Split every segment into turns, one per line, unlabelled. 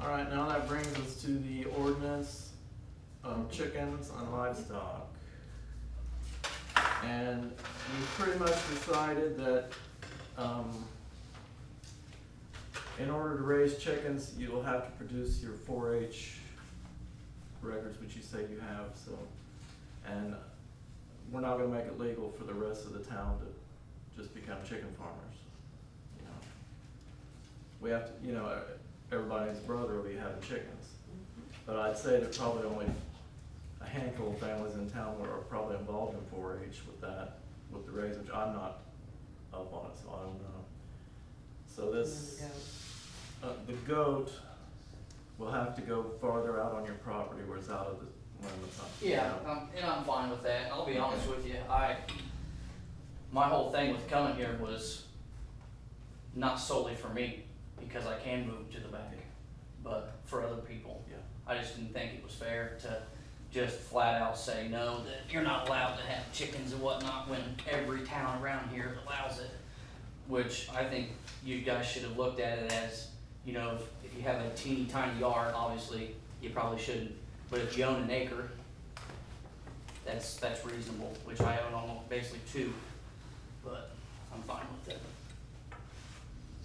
All right, now that brings us to the ordinance of chickens on livestock. And we pretty much decided that, um, in order to raise chickens, you'll have to produce your four H records, which you say you have, so. And we're not gonna make it legal for the rest of the town to just become chicken farmers, you know? We have to, you know, everybody's brother will be having chickens.
Mm-hmm.
But I'd say there's probably only a handful of families in town where are probably involved in four H with that, with the raise, which I'm not up on it, so I don't know. So this, uh, the goat will have to go farther out on your property where it's out of the limits. huh?
Yeah, um, and I'm fine with that, I'll be honest with you, I, my whole thing with coming here was not solely for me, because I can move to the back, but for other people.
Yeah.
I just didn't think it was fair to just flat out say no, that you're not allowed to have chickens and whatnot when every town around here allows it. Which I think you guys should have looked at it as, you know, if- if you have a teeny tiny yard, obviously, you probably shouldn't. But if you own an acre, that's, that's reasonable, which I own almost basically two, but I'm fine with it.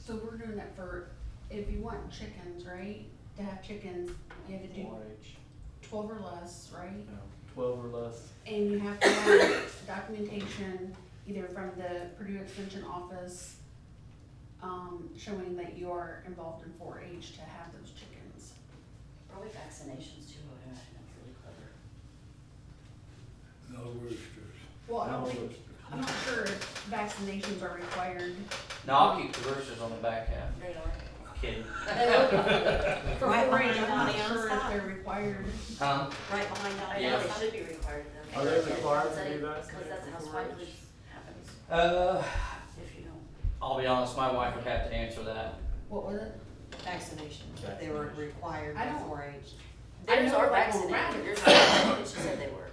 So we're doing it for, if you want chickens, right, to have chickens, you have to do
Four H,
twelve or less, right?
you know, twelve or less.
And you have to have documentation either from the Purdue Extension Office, um, showing that you are involved in four H to have those chickens.
Early vaccinations too, I think that's really clever.
No roosters.
Well, I don't
No,
think, I'm not sure if vaccinations are required.
No, I'll keep the roosters on the back half,
They are.
kidding.
For
Right
four H, I'm
behind
not
the
sure if
livestock.
they're required.
Huh?
Right behind that,
Yeah.
yeah, it should be required of them.
Are they required to
Because
be
that-
vaccinated
Because that's how
before
swine
age?
flu happens,
Uh,
if you don't.
I'll be honest, my wife would have to answer that.
What was it?
vaccination, if they were
Vaccination.
required
I don't-
before age.
I
Theirs
know
are
like on
vaccinated,
rabbits.
yours are vaccinated, she said they were.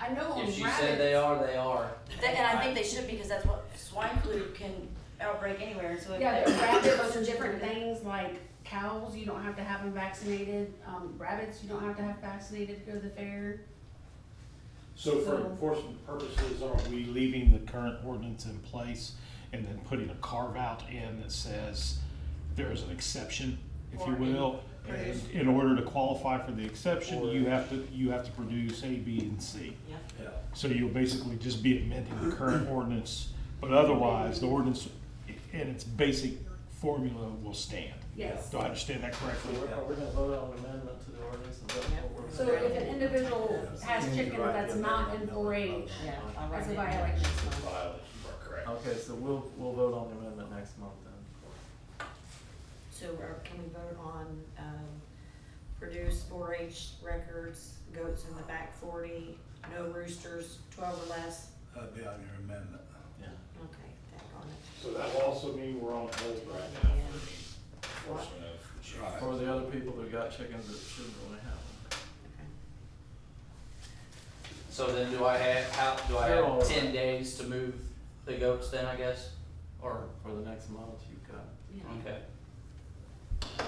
I know
If
on rabbits.
she said they are, they are.
They- And I think they should, because that's what, swine flu can outbreak anywhere, so if.
Yeah,
they-
but rabbits and different things like cows, you don't have to have them vaccinated. Um, rabbits, you don't have to have vaccinated to go to the fair.
So for
So-
enforcement purposes, are we leaving the current ordinance in place and then putting a carve out in that says there is an exception, if you
Or in-
will? And in order to qualify for the exception, you have to, you have to produce A, B, and C.
Yeah.
Yeah.
So you'll basically just be amending the current ordinance, but otherwise, the ordinance i- in its basic formula will stand.
Yes.
Do I understand that correctly?
So we're, are we gonna vote on an amendment to the ordinance? Is that what we're?
So if an individual has chickens that's not in four H,
Yeah, I'll write
That's a
it down.
violation.
Violation, correct.
Okay, so we'll, we'll vote on the amendment next month then.
So are- can we vote on, um, produce four H records, goats in the back forty, no roosters, twelve or less?
That'd be on your amendment.
Yeah.
Okay, that on it.
So that will also mean we're on hold
right now for the
enforcement
Right.
For the other people that got chickens that shouldn't really have them.
So then do I have, how, do I
They're all
have
right.
ten days to move the goats then, I guess? Or,
For the next month, you've got,
okay.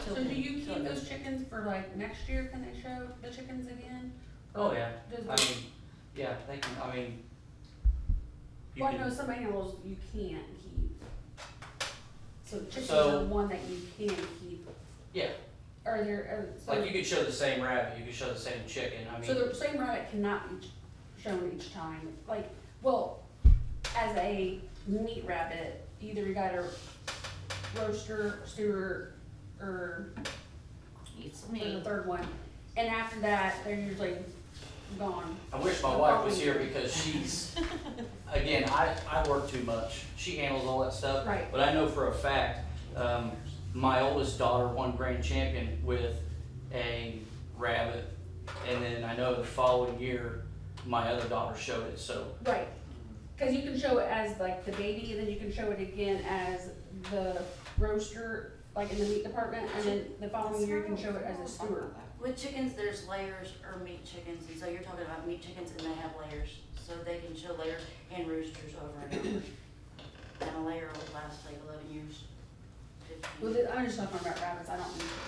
So do you
Till
keep
then.
those chickens for like next year? Can they show the chickens again?
Oh, yeah, I
Does,
mean, yeah, they can, I mean. you
well, I
can-
know some animals you can't keep. So chickens
So-
are one that you can keep.
Yeah,
Are there, uh,
like
so,
you could show the same rabbit, you could show the same chicken, I mean.
so the same rabbit cannot be shown each time? Like, well, as a meat rabbit, either you got a roaster, stewer, or
It's
the
me.
third one. And after that, they're usually gone.
I wish my wife was here because she's, again, I, I work too much. She handles all that stuff.
Right.
But I know for a fact, um, my oldest daughter won grand champion with a rabbit. And then I know the following year, my other daughter showed it, so
Right. Cause you can show it as like the baby, and then you can show it again as the roaster, like in the meat department, and then the following year you can show it as a stewer.
With chickens, there's layers or meat chickens, and so you're talking about meat chickens and they have layers, so they can show layers and roosters over and over. And a layer will last like eleven years, fifteen.
Well, I'm just talking about rabbits, I don't mean